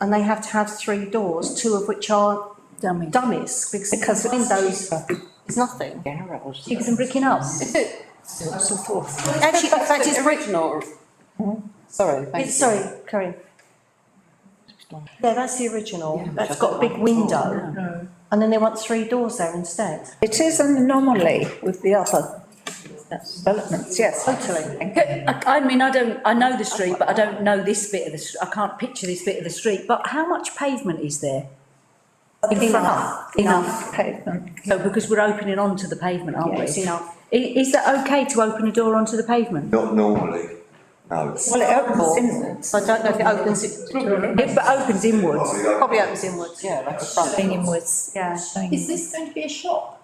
and they have to have three doors, two of which are dummy. dummies, because because windows is nothing. Garrels. Diggers and bricking up. So forth. Actually, in fact, it's, original. Sorry, thank you. it's, sorry, Corinne. Yeah, that's the original, Yeah, that's which I got a don't big like at all, window, and then they want three doors there instead. It is an anomaly with the other developments, yes. Totally. I, I mean, I don't, I know the street, but I don't know this bit of the, str- I can't picture this bit of the street, but how much pavement is there? Enough, enough pavement. So, because we're opening onto the pavement, aren't we? Yes, enough. I- Is, that okay to open a door onto the pavement? Not normally, Well, no. it opens inwards. So I don't know if it opens, it It but opens inwards. probably opens inwards, Yeah, like a front. inwards. yeah. Is this going to be a shop?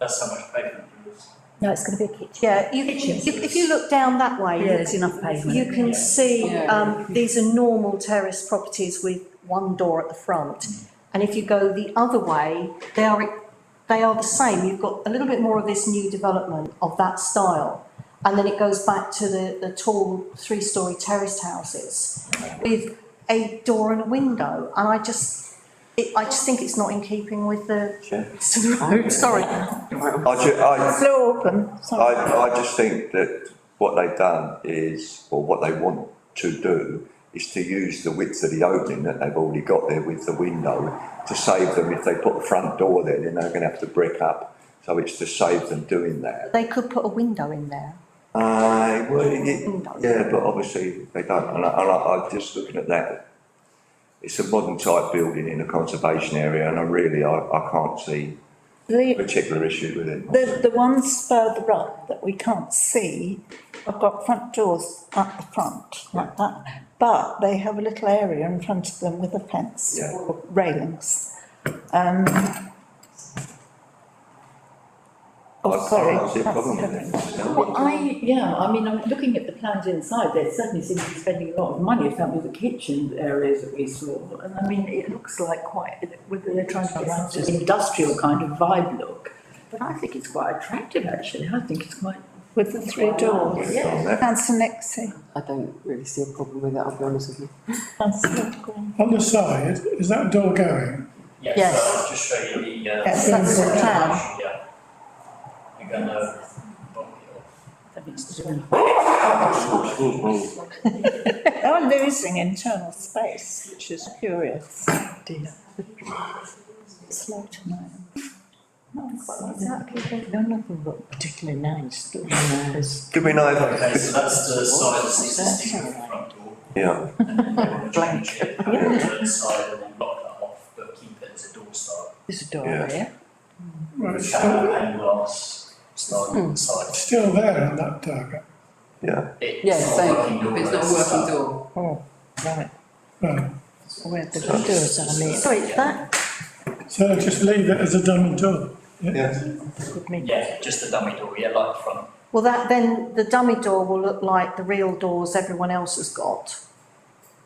That's how much pavement there is. No, it's going to be a kitchen. Yeah, you, you- if you look down that way, Yeah, there's enough pavement. You can see, Yeah. um, these are normal terrace properties with one door at the Mm. front. And if you go the other way, they are, they are the same. You've got a little bit more of this new development of that style. And then it goes back to the, the tall three-story terraced houses with a door and a window. And I just, it, I just think it's not in keeping with the, to the road, sorry. I ju, I, Floor open, sorry. I, I just think that what they've done is, or what they want to do, is to use the width of the opening that they've already got there with the window to save them. If they put a front door there, then they're gonna have to brick up. So it's to save them doing that. They could put a window in there. Uh, well, it, yeah, but obviously they don't, and I, and I, I'm just looking at that. It's a modern type building in a conservation area and I really, I, I can't see a The, particular issue with it. the, the ones further up that we can't see have got front doors at the front, like that. But they have a little area in front of them with a fence Yeah. or railings. Um. I Oh, can't sorry. see a that's problem with different. it, myself. Well, I, yeah, I mean, I'm looking at the plans inside, there certainly seems to be spending a lot of money, if that was the kitchen areas that we saw. And I mean, it looks like quite, whether they're trying to get some sort of industrial kind of vibe look. But I think it's quite attractive, actually, I think it's quite. With the three doors. It's on there. Councillor Nixie. I don't really see a problem with it, I'll be honest with you. Councillor Green. On the side, is that door going? Yeah, Yes. so I'll just show you the, uh. Yes, that's the plan. Yeah. You're gonna. They're Oh, losing internal space, which is curious. Dear. Slow tonight. None of them look particularly nice, do they? Do we know Okay, if, so that's the side that's existing front door. yeah, and then they wanna change it, have it to the side and then block that off, but keep it as a door style. There's a door Yeah. there. Well, it's Shallow still, and glass style on the side. it's still there on that target. yeah. Yeah, It's not a working so door, it's not a it's, uh, working door. Oh, right. Well, Where the doors are, mate. Sorry, that, so just leave it as a dummy door. Yeah, just the dummy door, yeah, like the front. well, that, then the dummy door will look like the real doors everyone else has got.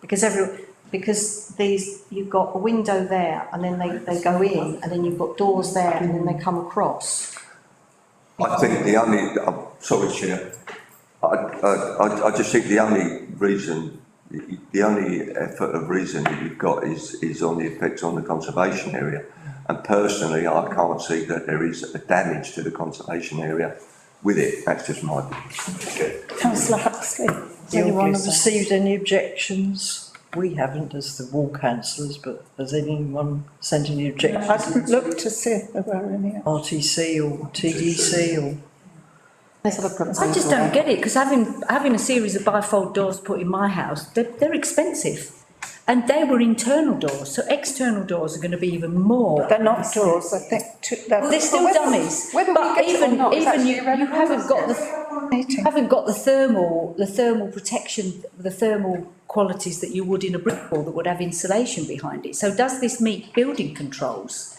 Because every, because these, you've got a window there and then they, they go in and then you've got doors there and then they come across. I think the only, I'm sorry, Chair. I, I, I- I just think the only reason, the only effort of reason that you've got is, is on the effects on the conservation area. And personally, I can't see that there is a damage to the conservation area with it. That's just my opinion. Councillor Huxley. Has anyone received any objections? We haven't as the ward councillors, but has anyone sent any I objections? didn't look to see if there were any. RTC or TDC or? Let's have a proposal. I just don't get it, because having, having a series of bifold doors put in my house, they're, they're expensive. And they were internal doors, so external doors are going to be even more. They're not doors, I think, two, they're. Well, they're still dummies, whether we but get it or even, not is even actually you, you haven't got the, Meeting. haven't got the thermal, the thermal protection, the thermal qualities that you would in a brick wall that would have insulation behind it. So does this meet building controls?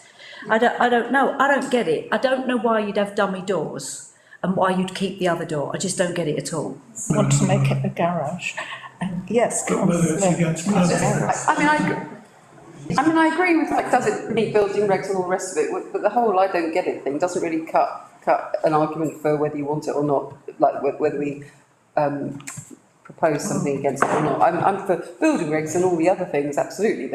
I don't, I don't know, I don't get it. I don't know why you'd have dummy doors and why you'd keep the other door. I just don't get it at all. Want to make it a garage. And yes, But whether it's councillor. against another, I I mean, I, gr- I mean, I agree with like, does it meet building regs and all the rest of it, but- but the whole I don't get it thing doesn't really cut, cut an argument for whether you want it or not, like wh- whether we, um, propose something against it or not. I'm, I'm for building regs and all the other things, absolutely,